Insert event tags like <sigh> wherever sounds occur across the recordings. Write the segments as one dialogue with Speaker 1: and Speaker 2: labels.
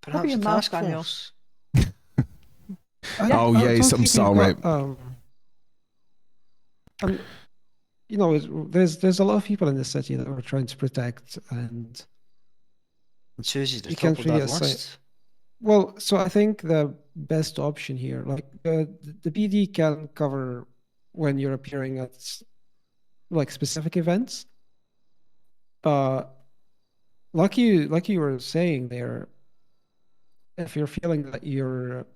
Speaker 1: Perhaps
Speaker 2: a
Speaker 1: a task
Speaker 2: mouthful.
Speaker 1: Angus.
Speaker 3: I-
Speaker 4: Oh,
Speaker 3: I'm
Speaker 4: yes, I'm
Speaker 3: talking
Speaker 4: sorry.
Speaker 3: about, um, um, you know, it- there's there's a lot of people in the city that we're trying to protect, and
Speaker 1: And Susie's the
Speaker 3: You
Speaker 1: top
Speaker 3: can't
Speaker 1: of
Speaker 3: really
Speaker 1: that
Speaker 3: assign-
Speaker 1: list.
Speaker 3: well, so I think the best option here, like the the PD can cover when you're appearing at s- like specific events, but like you like you were saying there, if you're feeling that you're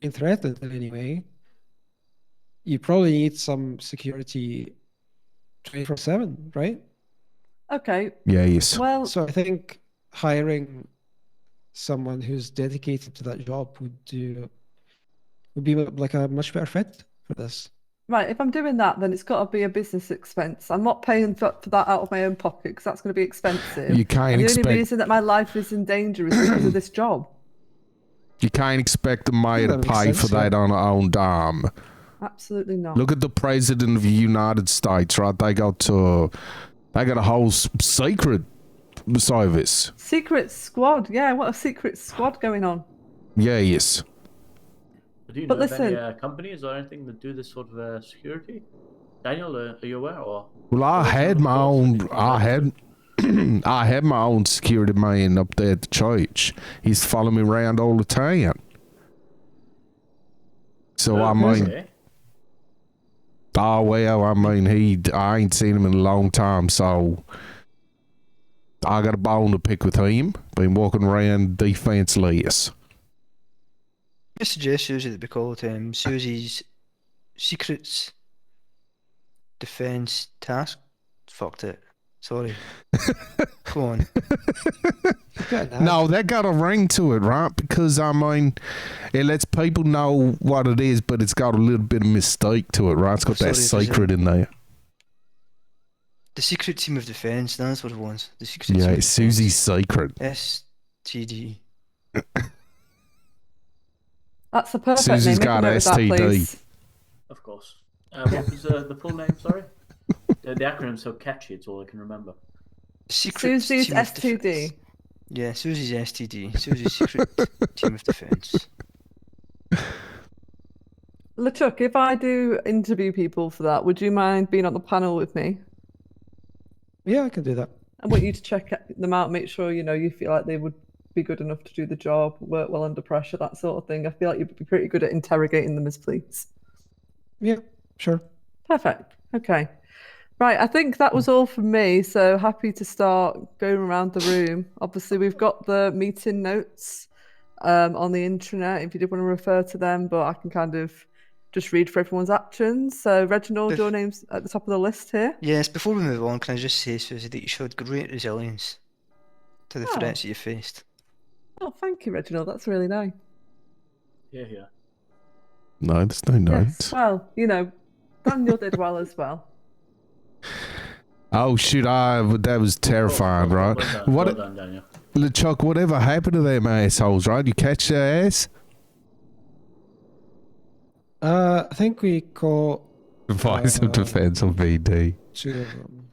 Speaker 3: being threatened in any way, you probably need some security twenty four seven, right?
Speaker 2: Okay.
Speaker 4: Yeah, yes.
Speaker 2: Well,
Speaker 3: So I think hiring someone who's dedicated to that job would do would be like a much better fit for this.
Speaker 2: right. If I'm doing that, then it's got to be a business expense. I'm not paying for, for that out of my own pocket because that's going to be expensive.
Speaker 4: You can't
Speaker 2: And the
Speaker 4: expect
Speaker 2: only reason that my life is in danger is because of this job.
Speaker 4: you can't expect the mayor to
Speaker 3: That makes
Speaker 4: pay
Speaker 3: sense,
Speaker 4: for
Speaker 3: yeah.
Speaker 4: that on her own dime.
Speaker 2: Absolutely not.
Speaker 4: Look at the president of the United States, right? They got to they got a whole s- secret service.
Speaker 2: Secret squad. Yeah, what a secret squad going on.
Speaker 4: Yeah, yes.
Speaker 5: Do you
Speaker 2: But
Speaker 5: know of any
Speaker 2: listen-
Speaker 5: uh, companies or anything that do this sort of uh, security? Daniel, uh, are you aware or?
Speaker 4: Well, I
Speaker 5: Well,
Speaker 4: had
Speaker 5: of
Speaker 4: my
Speaker 5: course,
Speaker 4: own.
Speaker 5: if you
Speaker 4: I
Speaker 5: like
Speaker 4: had. <clears throat> I had my own security man up there at the church. He's to follow me around all the time. So
Speaker 5: Uh,
Speaker 4: I mean,
Speaker 5: Okay.
Speaker 4: oh well, I mean he. I ain't seen him in a long time, so I got a bone to pick with him. Been walking around defenseless.
Speaker 1: I suggest Susie that we call it um, Susie's Secrets Defence Task. Fucked it. Sorry. Come on.
Speaker 3: Yeah,
Speaker 4: No, that got a ring to it, right? Because I mean, it lets people know what it is, but it's got a little bit of mistake to it, right? It's got that
Speaker 1: Sorry, is it-
Speaker 4: secret in there.
Speaker 1: The Secret Team of Defence. That's what it was. The Secret
Speaker 4: Yeah,
Speaker 1: Team.
Speaker 4: it's Susie's secret.
Speaker 1: STD.
Speaker 2: That's a perfect
Speaker 4: Susie's
Speaker 2: name. Make a
Speaker 4: got
Speaker 2: note of that,
Speaker 4: STD.
Speaker 2: please.
Speaker 5: Of course. Uh, what was uh, the full name?
Speaker 4: <laughs>
Speaker 5: Sorry. Uh, the, the acronym's so catchy; it's all I can remember.
Speaker 1: Secret
Speaker 2: Susie's
Speaker 1: Team of Defence.
Speaker 2: STD.
Speaker 1: Yeah, Susie's STD. Susie's Secret Team of Defence.
Speaker 2: Luchuk, if I do interview people for that, would you mind being on the panel with me?
Speaker 3: yeah, I can do that.
Speaker 2: I want you to check them out, make sure you know you feel like they would be good enough to do the job, work well under pressure, that sort of thing. I feel like you'd be pretty good at interrogating them as police.
Speaker 3: Yeah, sure.
Speaker 2: Perfect. Okay. Right, I think that was all from me. So happy to start going around the room. Obviously, we've got the meeting notes um, on the intranet if you did want to refer to them, but I can kind of just read for everyone's actions. So, Reginald,
Speaker 1: If-
Speaker 2: your name's at the top of the list here.
Speaker 1: Yes, before we move on, can I just say, Susie, that you showed great resilience to the
Speaker 2: Oh.
Speaker 1: threats that you faced.
Speaker 2: Oh, thank you, Reginald. That's really nice.
Speaker 5: Yeah, yeah.
Speaker 4: No, there's no
Speaker 2: Yes.
Speaker 4: notes.
Speaker 2: Well, you know, Daniel did well as well.
Speaker 4: Oh shoot! I that was terrifying,
Speaker 5: Well
Speaker 4: right?
Speaker 5: done, well
Speaker 4: What,
Speaker 5: done, Daniel.
Speaker 4: LeChuck? Whatever happened to them assholes, right? You catch their ass?
Speaker 3: Uh, I think we call
Speaker 4: Advice
Speaker 3: Uh,
Speaker 4: of defense on VD.
Speaker 3: two of them.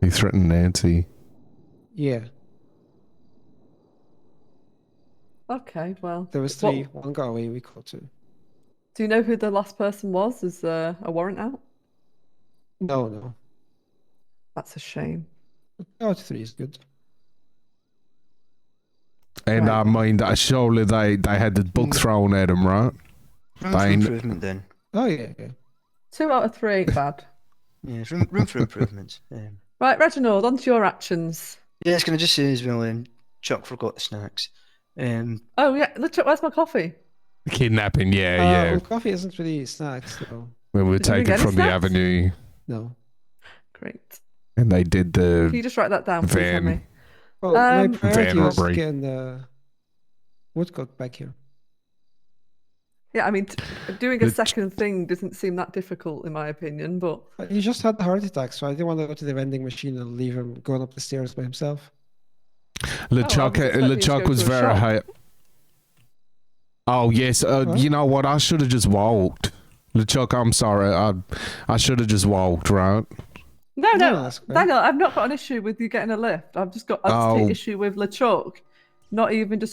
Speaker 4: He threatened Nancy.
Speaker 3: Yeah,
Speaker 2: Okay, well.
Speaker 3: there was
Speaker 2: what-
Speaker 3: three. One got away. We caught two.
Speaker 2: do you know who the last person was? Is uh, a warrant out?
Speaker 3: No, no.
Speaker 2: That's a shame.
Speaker 3: Oh, three is good.
Speaker 4: And
Speaker 2: Right. Mm.
Speaker 4: I mean, that surely they they had the book thrown at him, right?
Speaker 1: Room for
Speaker 4: Fine.
Speaker 1: improvement then.
Speaker 3: Oh yeah, yeah.
Speaker 2: Two out of three
Speaker 4: <laughs>
Speaker 2: ain't bad.
Speaker 1: Yeah, room, room for improvement. Um,
Speaker 2: Right, Reginald, on to your actions.
Speaker 1: yes, can I just say as well, um, Chuck forgot the snacks. Um,
Speaker 2: Oh yeah, look, Chuck, where's my coffee?
Speaker 4: Kidnapping, yeah,
Speaker 3: Uh,
Speaker 4: yeah.
Speaker 3: well, coffee isn't really snacks though.
Speaker 4: When we were
Speaker 2: Oh. Did you
Speaker 4: taken
Speaker 2: get
Speaker 4: from the
Speaker 2: snacks?
Speaker 4: avenue,
Speaker 3: No.
Speaker 2: Great.
Speaker 4: and they did
Speaker 2: Can you
Speaker 4: the
Speaker 2: just write that down, please,
Speaker 4: Van.
Speaker 2: Henry?
Speaker 3: Well,
Speaker 2: Um,
Speaker 3: my
Speaker 2: Van
Speaker 3: priority was
Speaker 4: robbery.
Speaker 3: getting the woodcock back here.
Speaker 2: Yeah, I mean, t- doing a
Speaker 4: The ch-
Speaker 2: second thing doesn't seem that difficult, in my opinion. But
Speaker 3: Uh, He just had the heart attack, so I didn't want to go to the vending machine and leave him going up the stairs by himself.
Speaker 2: Oh,
Speaker 4: LeChuck.
Speaker 2: I was expecting you to
Speaker 4: LeChuck
Speaker 2: go
Speaker 4: was
Speaker 2: to a
Speaker 4: very
Speaker 2: shop.
Speaker 4: high. Oh yes, uh,
Speaker 3: Huh?
Speaker 4: you know what? I should have just walked. LeChuck, I'm sorry. I I should have just walked, right?
Speaker 2: no,
Speaker 3: No,
Speaker 2: no,
Speaker 3: that's great.
Speaker 2: Daniel, I've not got an issue with you getting a lift. I've just got I've just
Speaker 4: Oh.
Speaker 2: an issue with LeChuck not even just